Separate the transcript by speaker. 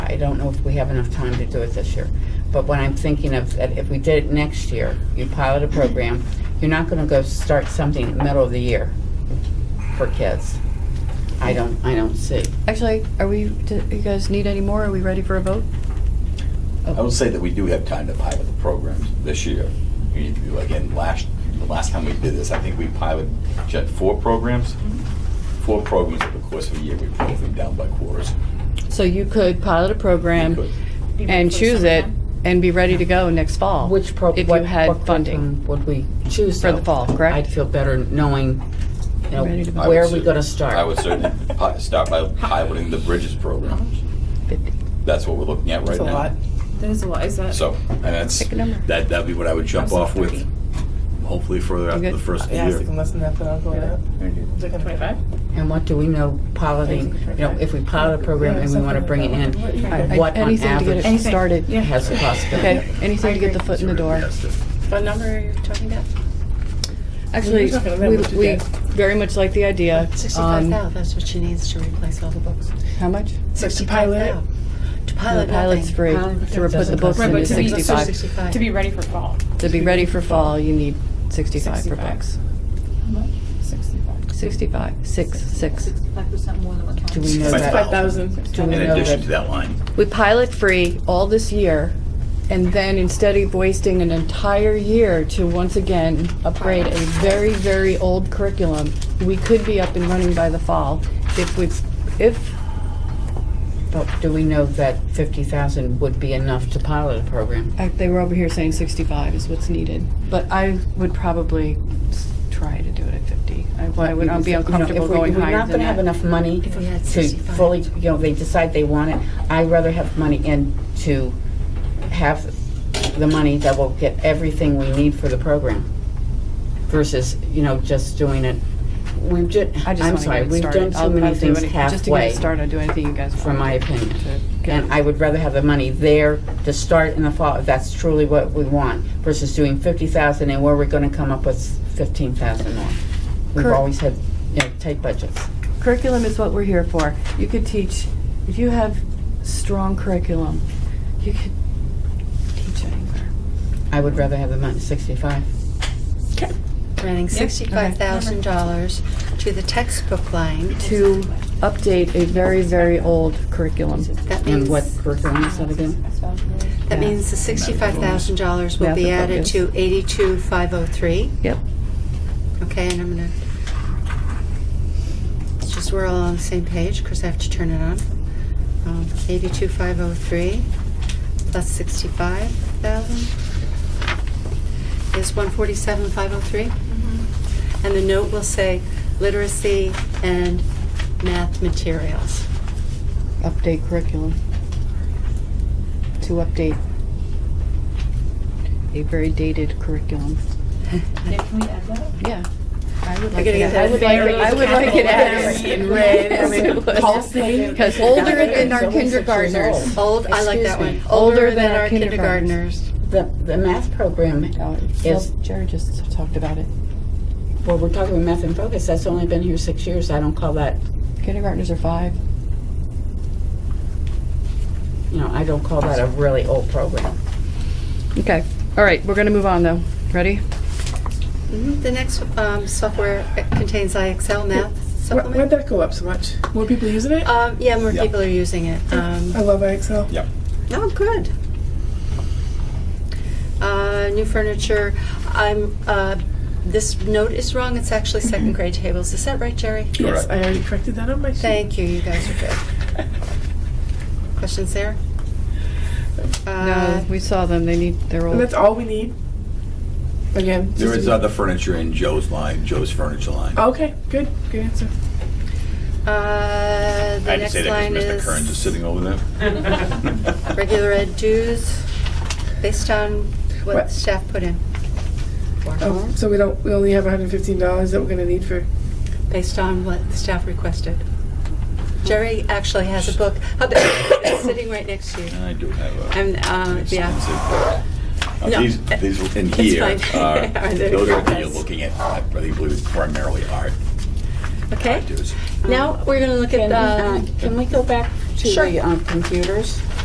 Speaker 1: I don't know if we have enough time to do it this year. But what I'm thinking of, that if we did it next year, you pilot a program, you're not gonna go start something in the middle of the year for kids. I don't, I don't see.
Speaker 2: Actually, are we, do you guys need any more? Are we ready for a vote?
Speaker 3: I would say that we do have time to pilot the programs this year. We- you- Again, last, the last time we did this, I think we piloted, shut four programs?
Speaker 1: Mm-hmm.
Speaker 3: Four programs over the course of a year, we broke them down by quarters.
Speaker 2: So you could pilot a
Speaker 3: We
Speaker 2: program
Speaker 3: could.
Speaker 2: and choose it and be ready to go next fall.
Speaker 1: Which pro,
Speaker 2: If
Speaker 1: what-
Speaker 2: you had
Speaker 1: what
Speaker 2: funding
Speaker 1: curriculum Would we choose?
Speaker 2: for the
Speaker 1: though?
Speaker 2: fall,
Speaker 1: I'd
Speaker 2: correct?
Speaker 1: feel better knowing, you know,
Speaker 2: Ready to
Speaker 3: I would
Speaker 1: where are we
Speaker 3: cer-
Speaker 1: gonna start?
Speaker 3: I would certainly pi- start by piloting the Bridges program. That's what we're looking at right
Speaker 4: That's a lot.
Speaker 3: now.
Speaker 4: That is a lot, is that?
Speaker 3: So, and that's,
Speaker 2: Pick a number.
Speaker 3: that, that'd be what I would jump off with, hopefully further after
Speaker 2: good?
Speaker 3: the first
Speaker 4: Yeah, it's
Speaker 3: year.
Speaker 4: like less than that, but I'll go with that. Twenty-five?
Speaker 1: And what do we know piloting, you know, if we pilot a program and we wanna bring it in,
Speaker 2: I-
Speaker 1: what on
Speaker 2: Anything to get
Speaker 1: average
Speaker 2: it started.
Speaker 4: Yeah.
Speaker 1: has the possibility?
Speaker 2: Okay, anything to get the foot in the door.
Speaker 4: What number are you talking about?
Speaker 2: Actually,
Speaker 4: We're talking about
Speaker 2: we,
Speaker 4: what to
Speaker 2: we
Speaker 4: get.
Speaker 2: very much like the idea.
Speaker 5: Sixty-five
Speaker 2: Um,
Speaker 5: thousand, that's what she needs to replace all the books.
Speaker 2: How much?
Speaker 4: Six to pilot.
Speaker 5: $65,000. To
Speaker 2: The
Speaker 5: pilot
Speaker 2: pilot's
Speaker 5: nothing.
Speaker 2: free.
Speaker 1: Pilot
Speaker 2: To put the
Speaker 1: doesn't
Speaker 2: books
Speaker 1: cost
Speaker 2: into
Speaker 4: anything. Right, but to be-
Speaker 2: sixty-five.
Speaker 5: Sixty-five.
Speaker 4: To be ready for fall.
Speaker 2: To be ready for fall, you need sixty-five for
Speaker 4: 65.
Speaker 2: books.
Speaker 4: Sixty-five.
Speaker 2: Sixty-five, six, six.
Speaker 6: Five percent more than what
Speaker 1: Do
Speaker 6: counts.
Speaker 1: we know that?
Speaker 4: Five thousand.
Speaker 1: Do we
Speaker 3: In
Speaker 1: know
Speaker 3: addition to
Speaker 1: that?
Speaker 3: that line.
Speaker 2: We pilot free all this year, and then instead of wasting an entire year to once again upgrade a very, very old curriculum, we could be up and running by the fall if we, if,
Speaker 1: But do we know that fifty thousand would be enough to pilot a program?
Speaker 2: uh, they were over here saying sixty-five is what's needed. But I would probably s- try to do it at fifty. I I would not be
Speaker 1: You know, if we-
Speaker 2: uncomfortable going
Speaker 1: If we're
Speaker 2: higher
Speaker 1: not
Speaker 2: than
Speaker 1: gonna have
Speaker 2: that.
Speaker 1: enough money
Speaker 5: If we had
Speaker 1: to
Speaker 5: 65.
Speaker 1: fully, you know, they decide they want it, I'd rather have money in to have the money that will get everything we need for the program versus, you know, just doing it, we've ju,
Speaker 2: I just
Speaker 1: I'm
Speaker 2: wanna get
Speaker 1: sorry,
Speaker 2: it
Speaker 1: we've
Speaker 2: started.
Speaker 1: done
Speaker 2: I'll-
Speaker 1: too many
Speaker 2: I'll do
Speaker 1: things
Speaker 2: any- Just to get
Speaker 1: halfway,
Speaker 2: it started, I'll do anything you guys want.
Speaker 1: from my
Speaker 2: to-
Speaker 1: opinion.
Speaker 2: to get
Speaker 1: And I would rather have the money there to start in the fall, if that's truly what we want, versus doing fifty thousand and where we're gonna come up with fifteen thousand more. We've
Speaker 2: Correct.
Speaker 1: always had, you know, tight budgets.
Speaker 2: curriculum is what we're here for. You could teach, if you have strong curriculum, you could teach anywhere.
Speaker 1: I would rather have the money, sixty-five.
Speaker 5: Running sixty-five thousand dollars to the textbook line.
Speaker 2: To update a very, very old curriculum.
Speaker 5: That
Speaker 1: And
Speaker 5: means,
Speaker 1: what curriculum is that again?
Speaker 5: that means the sixty-five thousand dollars will
Speaker 2: Math
Speaker 5: be
Speaker 2: and
Speaker 5: added
Speaker 2: focus.
Speaker 5: to eighty-two five oh three.
Speaker 2: Yep.
Speaker 5: Okay, and I'm gonna, it's just we're all on the same page, because I have to turn it on. Um, Eighty-two five oh three plus sixty-five thousand is one forty-seven five oh three. And the note will say literacy and math materials.
Speaker 2: Update curriculum. To update a very dated curriculum.
Speaker 6: Can we add that?
Speaker 2: Yeah. I would
Speaker 5: We're
Speaker 2: like
Speaker 5: gonna
Speaker 2: it.
Speaker 5: get
Speaker 2: I would
Speaker 5: that
Speaker 2: like it.
Speaker 5: very
Speaker 2: I would like it added.
Speaker 5: capitalized
Speaker 4: in red, I mean,
Speaker 2: Because older than our kindergartners.
Speaker 5: Old, I like
Speaker 2: Excuse
Speaker 5: that
Speaker 2: me.
Speaker 5: one. Older
Speaker 2: Older
Speaker 5: than our
Speaker 2: kindergartners.
Speaker 5: kindergartners.
Speaker 1: The, the math program, Yes.
Speaker 2: Jared just talked about it.
Speaker 1: well, we're talking about math and focus, that's only been here six years, I don't call that,
Speaker 2: Kindergartners are five.
Speaker 1: you know, I don't call that a really old program.
Speaker 2: Okay, all right, we're gonna move on though. Ready?
Speaker 5: Mhm. The next um, software contains IXL
Speaker 4: Where-
Speaker 5: math
Speaker 4: Where'd
Speaker 5: supplement.
Speaker 4: that go up so much? More people using
Speaker 3: Uh,
Speaker 4: it?
Speaker 5: Um, yeah, more
Speaker 3: Yeah.
Speaker 5: people are using it. Um,
Speaker 4: I love Excel.
Speaker 3: Yep.
Speaker 5: Oh, good. Uh, new furniture. I'm. Uh, this note is wrong. It's actually
Speaker 3: Mm-hmm.
Speaker 5: second grade tables. Is that right, Jerry?
Speaker 4: Yes,
Speaker 3: Correct.
Speaker 4: I already corrected that on my sheet.
Speaker 5: Thank you. You guys are good. Questions there? Uh,
Speaker 2: No, we saw them, they need, they're
Speaker 4: And that's
Speaker 2: old.
Speaker 4: all we need. Again. just
Speaker 3: There
Speaker 4: to
Speaker 3: is
Speaker 4: be-
Speaker 3: other furniture in Joe's line, Joe's furniture line.
Speaker 5: Oh,
Speaker 4: Okay, good, good answer.
Speaker 5: uh,
Speaker 3: I
Speaker 5: the
Speaker 3: had to
Speaker 5: next
Speaker 3: say that
Speaker 5: line
Speaker 3: because Mr.
Speaker 5: is
Speaker 3: Kearns is sitting over there.
Speaker 5: regular ed dues, based on what
Speaker 4: What?
Speaker 5: staff put in.
Speaker 4: Oh,
Speaker 3: Uh-huh.
Speaker 4: so we don't, we only have hundred and fifteen dollars that we're gonna need for,
Speaker 5: based on what the staff requested. Jerry actually has a book. How about- It's sitting right next to you.
Speaker 3: I do have a.
Speaker 5: And,
Speaker 3: an
Speaker 5: uh, yeah,
Speaker 3: expensive book. Now,
Speaker 5: No,
Speaker 3: These, these in
Speaker 5: it's
Speaker 3: here
Speaker 5: fine.
Speaker 3: are,
Speaker 5: Are they
Speaker 3: those are,
Speaker 5: photos?
Speaker 3: you're looking at, I really believe it's primarily art.
Speaker 5: okay.
Speaker 3: There's-
Speaker 5: Now, we're going to look at
Speaker 1: Can we, uh,
Speaker 5: the,
Speaker 1: can we go back to
Speaker 5: Sure.
Speaker 1: the um, computers?